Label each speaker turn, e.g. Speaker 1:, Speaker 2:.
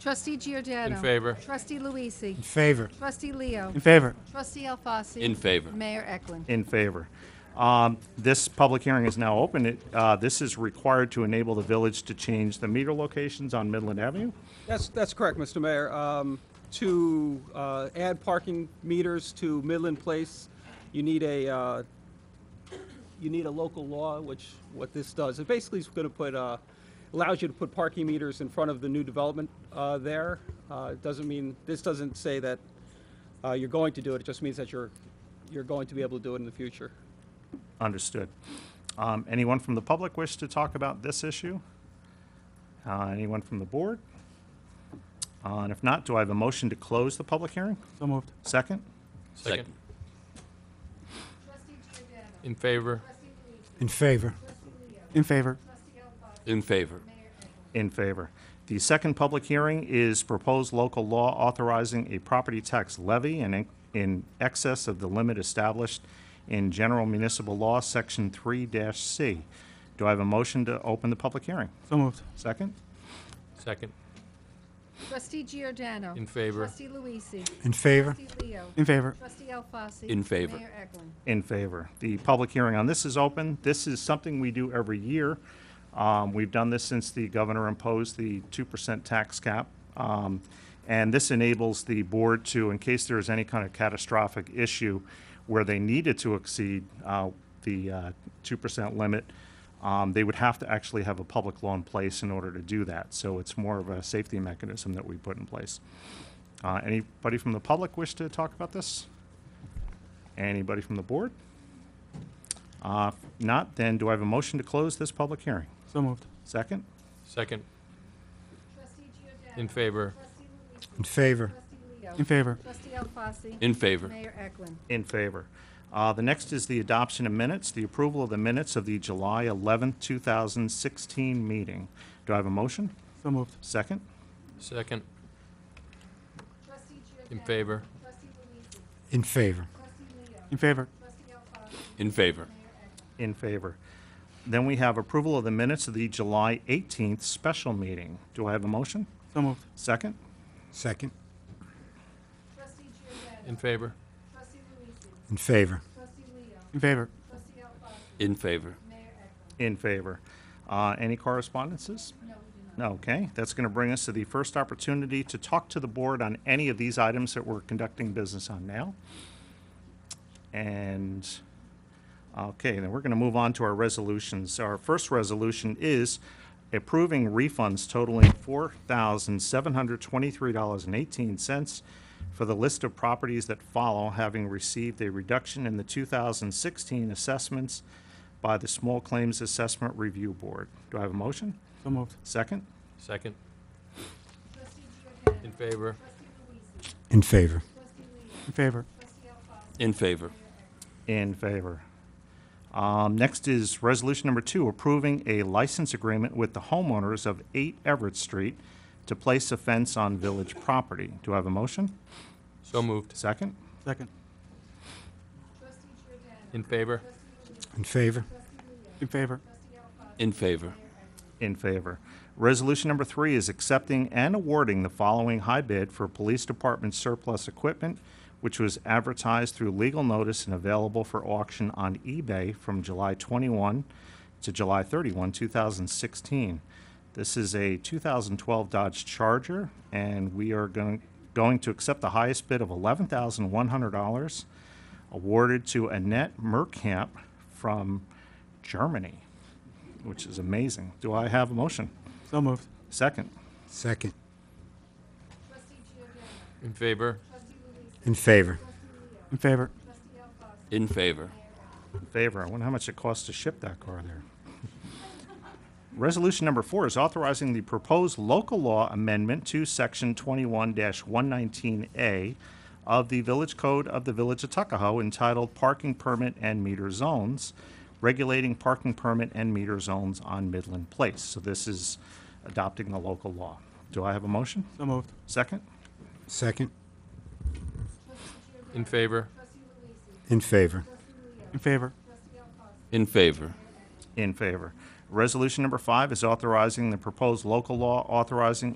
Speaker 1: Trustee Giordano.
Speaker 2: In favor.
Speaker 1: Trustee Luisi.
Speaker 3: In favor.
Speaker 1: Trustee Leo.
Speaker 4: In favor.
Speaker 1: Trustee Alfasi.
Speaker 2: In favor.
Speaker 1: Mayor Eklund.
Speaker 5: In favor. Um, This public hearing is now open. It, uh, This is required to enable the village to change the meter locations on Midland Avenue.
Speaker 6: That's, that's correct, Mr. Mayor. Um, To uh, add parking meters to Midland Place, you need a, uh, you need a local law, which, what this does, it basically is going to put, uh, allows you to put parking meters in front of the new development uh, there. Uh, It doesn't mean, this doesn't say that uh, you're going to do it, it just means that you're, you're going to be able to do it in the future.
Speaker 5: Understood. Um, Anyone from the public wish to talk about this issue? Uh, Anyone from the board? Uh, And if not, do I have a motion to close the public hearing?
Speaker 4: So moved.
Speaker 5: Second?
Speaker 2: Second.
Speaker 1: Trustee Giordano.
Speaker 2: In favor.
Speaker 1: Trustee Luisi.
Speaker 3: In favor.
Speaker 1: Trustee Leo.
Speaker 4: In favor.
Speaker 1: Trustee Alfasi.
Speaker 2: In favor.
Speaker 1: Mayor Eklund.
Speaker 5: In favor. The second public hearing is proposed local law authorizing a property tax levy in, in excess of the limit established in General Municipal Law, Section 3-C. Do I have a motion to open the public hearing?
Speaker 4: So moved.
Speaker 5: Second?
Speaker 2: Second.
Speaker 1: Trustee Giordano.
Speaker 2: In favor.
Speaker 1: Trustee Luisi.
Speaker 3: In favor.
Speaker 1: Trustee Leo.
Speaker 4: In favor.
Speaker 1: Trustee Alfasi.
Speaker 2: In favor.
Speaker 1: Mayor Eklund.
Speaker 5: In favor. The public hearing on this is open. This is something we do every year. Um, We've done this since the governor imposed the 2% tax cap. Um, And this enables the board to, in case there is any kind of catastrophic issue where they needed to exceed uh, the uh, 2% limit, um, they would have to actually have a public law in place in order to do that. So it's more of a safety mechanism that we put in place. Uh, Anybody from the public wish to talk about this? Anybody from the board? Uh, if Not, then do I have a motion to close this public hearing?
Speaker 4: So moved.
Speaker 5: Second?
Speaker 2: Second.
Speaker 1: Trustee Giordano.
Speaker 2: In favor.
Speaker 1: Trustee Luisi.
Speaker 3: In favor.
Speaker 1: Trustee Leo.
Speaker 4: In favor.
Speaker 1: Trustee Alfasi.
Speaker 2: In favor.
Speaker 1: Mayor Eklund.
Speaker 5: In favor. Uh, The next is the adoption of minutes, the approval of the minutes of the July 11th, 2016 meeting. Do I have a motion?
Speaker 4: So moved.
Speaker 5: Second?
Speaker 2: Second.
Speaker 1: Trustee Giordano.
Speaker 2: In favor.
Speaker 1: Trustee Luisi.
Speaker 3: In favor.
Speaker 1: Trustee Leo.
Speaker 4: In favor.
Speaker 1: Trustee Alfasi.
Speaker 2: In favor.
Speaker 1: Mayor Eklund.
Speaker 5: In favor. Then we have approval of the minutes of the July 18th special meeting. Do I have a motion?
Speaker 4: So moved.
Speaker 5: Second?
Speaker 3: Second.
Speaker 1: Trustee Giordano.
Speaker 2: In favor.
Speaker 1: Trustee Luisi.
Speaker 3: In favor.
Speaker 1: Trustee Leo.
Speaker 4: In favor.
Speaker 1: Trustee Alfasi.
Speaker 2: In favor.
Speaker 1: Mayor Eklund.
Speaker 5: In favor. Uh, Any correspondences?
Speaker 1: No, we do not.
Speaker 5: Okay, that's going to bring us to the first opportunity to talk to the board on any of these items that we're conducting business on now. And, okay, then we're going to move on to our resolutions. Our first resolution is approving refunds totaling $4,723.18 for the list of properties that follow, having received a reduction in the 2016 assessments by the Small Claims Assessment Review Board. Do I have a motion?
Speaker 4: So moved.
Speaker 5: Second?
Speaker 2: Second.
Speaker 1: Trustee Giordano.
Speaker 2: In favor.
Speaker 1: Trustee Luisi.
Speaker 3: In favor.
Speaker 1: Trustee Leo.
Speaker 4: In favor.
Speaker 1: Trustee Alfasi.
Speaker 2: In favor.
Speaker 5: In favor. Um, Next is resolution number two, approving a license agreement with the homeowners of 8 Everett Street to place a fence on village property. Do I have a motion?
Speaker 2: So moved.
Speaker 5: Second?
Speaker 4: Second.
Speaker 1: Trustee Giordano.
Speaker 2: In favor.
Speaker 3: In favor.
Speaker 4: In favor.
Speaker 2: In favor.
Speaker 5: In favor. Resolution number three is accepting and awarding the following high bid for Police Department surplus equipment, which was advertised through legal notice and available for auction on eBay from July 21 to July 31, 2016. This is a 2012 Dodge Charger, and we are going, going to accept the highest bid of $11,100 awarded to Annette Merkamp from Germany which is amazing. Do I have a motion?
Speaker 4: So moved.
Speaker 5: Second.
Speaker 3: Second.
Speaker 1: Trustee Giordano.
Speaker 2: In favor.
Speaker 1: Trustee Luisi.
Speaker 3: In favor.
Speaker 1: Trustee Leo.
Speaker 4: In favor.
Speaker 1: Trustee Alfasi.
Speaker 2: In favor.
Speaker 5: In favor. I wonder how much it costs to ship that car there. Resolution number four is authorizing the proposed local law amendment to Section 21-119A of the Village Code of the Village of Tuckahoe entitled Parking Permit and Meter Zones, regulating parking permit and meter zones on Midland Place. So this is adopting the local law. Do I have a motion?
Speaker 4: So moved.
Speaker 5: Second?
Speaker 3: Second.
Speaker 2: In favor.
Speaker 1: Trustee Luisi.
Speaker 3: In favor.
Speaker 1: Trustee Leo.
Speaker 4: In favor.
Speaker 1: Trustee Alfasi.
Speaker 2: In favor.
Speaker 5: In favor. Resolution number five is authorizing the proposed local law authorizing